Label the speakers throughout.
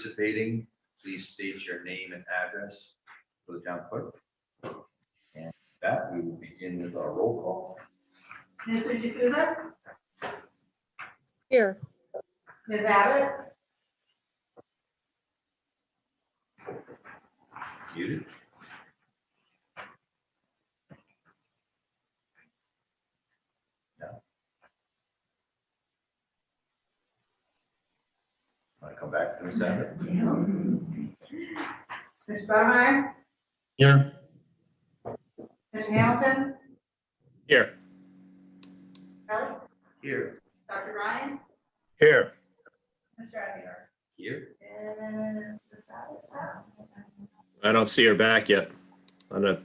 Speaker 1: participating, please state your name and address for the town clerk. And with that, we will begin with our roll call.
Speaker 2: Mr. Jukusa?
Speaker 3: Here.
Speaker 2: Ms. Abbott?
Speaker 1: Muted. No. Want to come back to Ms. Abbott?
Speaker 2: Ms. Bumey?
Speaker 4: Here.
Speaker 2: Mr. Hamilton?
Speaker 4: Here.
Speaker 2: Kelly?
Speaker 1: Here.
Speaker 2: Dr. Ryan?
Speaker 4: Here.
Speaker 2: Mr. Aguirre?
Speaker 1: Here.
Speaker 2: And Ms. Abbott?
Speaker 4: I don't see her back yet. On the,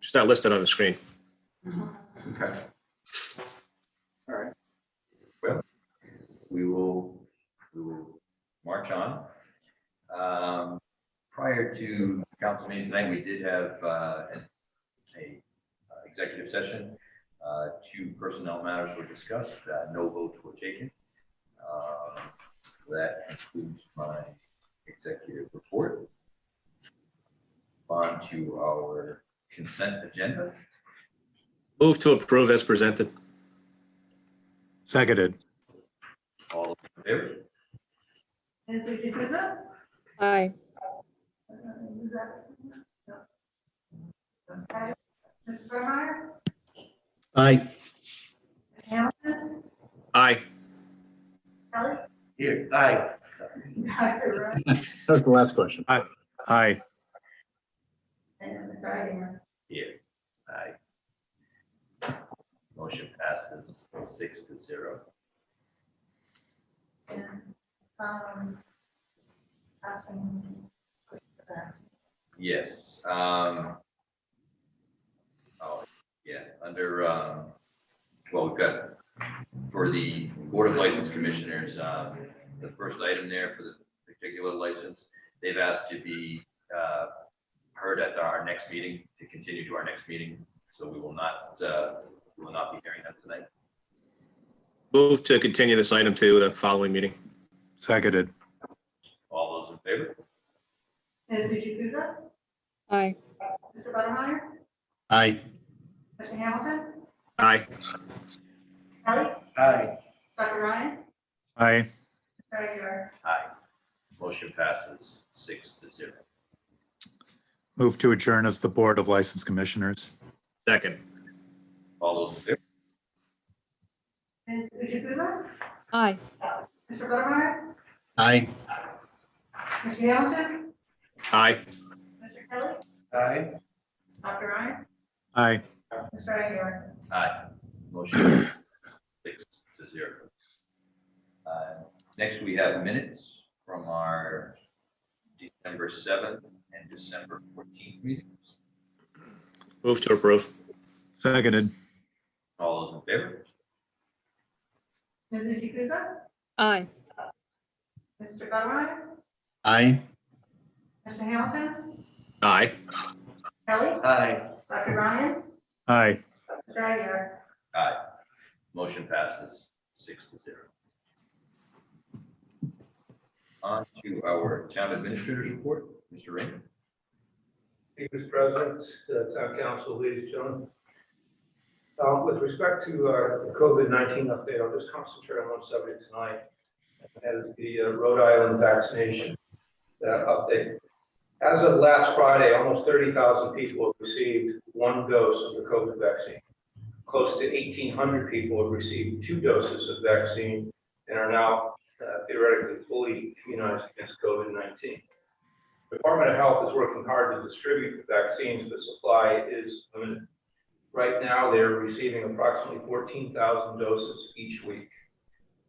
Speaker 4: she's not listed on the screen.
Speaker 1: Okay. All right. Well, we will, we will march on. Um, Prior to council meeting tonight, we did have uh, an a, uh, executive session. Uh, Two personnel matters were discussed, uh, no votes were taken. Um, That concludes my executive report. On to our consent agenda.
Speaker 4: Move to approve as presented.
Speaker 5: Seconded.
Speaker 1: All those in favor?
Speaker 2: Mr. Jukusa?
Speaker 3: Aye.
Speaker 2: Ms. Abbott? No. Okay. Mr. Bumey?
Speaker 4: Aye.
Speaker 2: Ms. Hamilton?
Speaker 4: Aye.
Speaker 2: Kelly?
Speaker 1: Here, aye. Sorry.
Speaker 2: Dr. Ryan?
Speaker 5: That's the last question. Aye. Aye.
Speaker 2: And Mr. Aguirre?
Speaker 1: Here, aye. Motion passes six to zero.
Speaker 2: And, um, passing.
Speaker 1: Yes, um. Oh, yeah, under, um, well, we've got, for the Board of License Commissioners, um, the first item there for the particular license, they've asked to be, uh, heard at our next meeting, to continue to our next meeting, so we will not, uh, we will not be hearing that tonight.
Speaker 4: Move to continue this item to the following meeting.
Speaker 5: Seconded.
Speaker 1: All those in favor?
Speaker 2: Mr. Jukusa?
Speaker 3: Aye.
Speaker 2: Mr. Buttermeyer?
Speaker 5: Aye.
Speaker 2: Mr. Hamilton?
Speaker 4: Aye.
Speaker 2: Kelly? Dr. Ryan?
Speaker 5: Aye.
Speaker 2: Mr. Aguirre?
Speaker 1: Aye. Motion passes six to zero.
Speaker 5: Move to adjourn as the Board of License Commissioners.
Speaker 4: Second.
Speaker 1: All those in favor?
Speaker 2: Ms. Jukusa?
Speaker 3: Aye.
Speaker 2: Mr. Buttermeyer?
Speaker 5: Aye.
Speaker 2: Mr. Hamilton?
Speaker 4: Aye.
Speaker 2: Mr. Kelly?
Speaker 1: Aye.
Speaker 2: Dr. Ryan?
Speaker 5: Aye.
Speaker 2: Mr. Aguirre?
Speaker 1: Aye. Motion six to zero. Uh, Next, we have minutes from our December seventh and December fourteenth meetings.
Speaker 4: Move to approve.
Speaker 5: Seconded.
Speaker 1: All those in favor?
Speaker 2: Ms. Jukusa?
Speaker 3: Aye.
Speaker 2: Mr. Buttermeyer?
Speaker 5: Aye.
Speaker 2: Mr. Hamilton?
Speaker 4: Aye.
Speaker 2: Kelly?
Speaker 1: Aye.
Speaker 2: Dr. Ryan?
Speaker 5: Aye.
Speaker 2: Mr. Aguirre?
Speaker 1: Aye. Motion passes six to zero. On to our town administrator's report, Mr. Raymond.
Speaker 6: Thank you, Mr. President, uh, Town Council, ladies and gentlemen. Uh, With respect to our COVID-19 update, I'll just concentrate on one subject tonight, and that is the uh, Rhode Island vaccination uh, update. As of last Friday, almost 30,000 people have received one dose of the COVID vaccine. Close to 1,800 people have received two doses of vaccine and are now uh, theoretically fully immunized against COVID-19. Department of Health is working hard to distribute the vaccines, but supply is limited. Right now, they're receiving approximately fourteen thousand doses each week.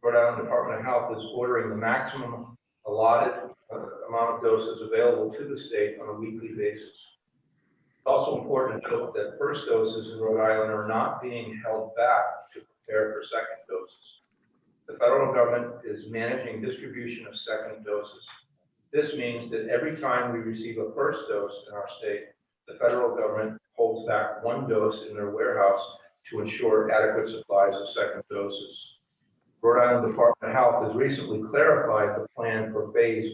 Speaker 6: Rhode Island Department of Health is ordering the maximum allotted uh, amount of doses available to the state on a weekly basis. It's Also important to note that first doses in Rhode Island are not being held back to prepare for second doses. The federal government is managing distribution of second doses. This means that every time we receive a first dose in our state, the federal government holds back one dose in their warehouse to ensure adequate supplies of second doses. Rhode Island Department of Health has recently clarified the plan for phase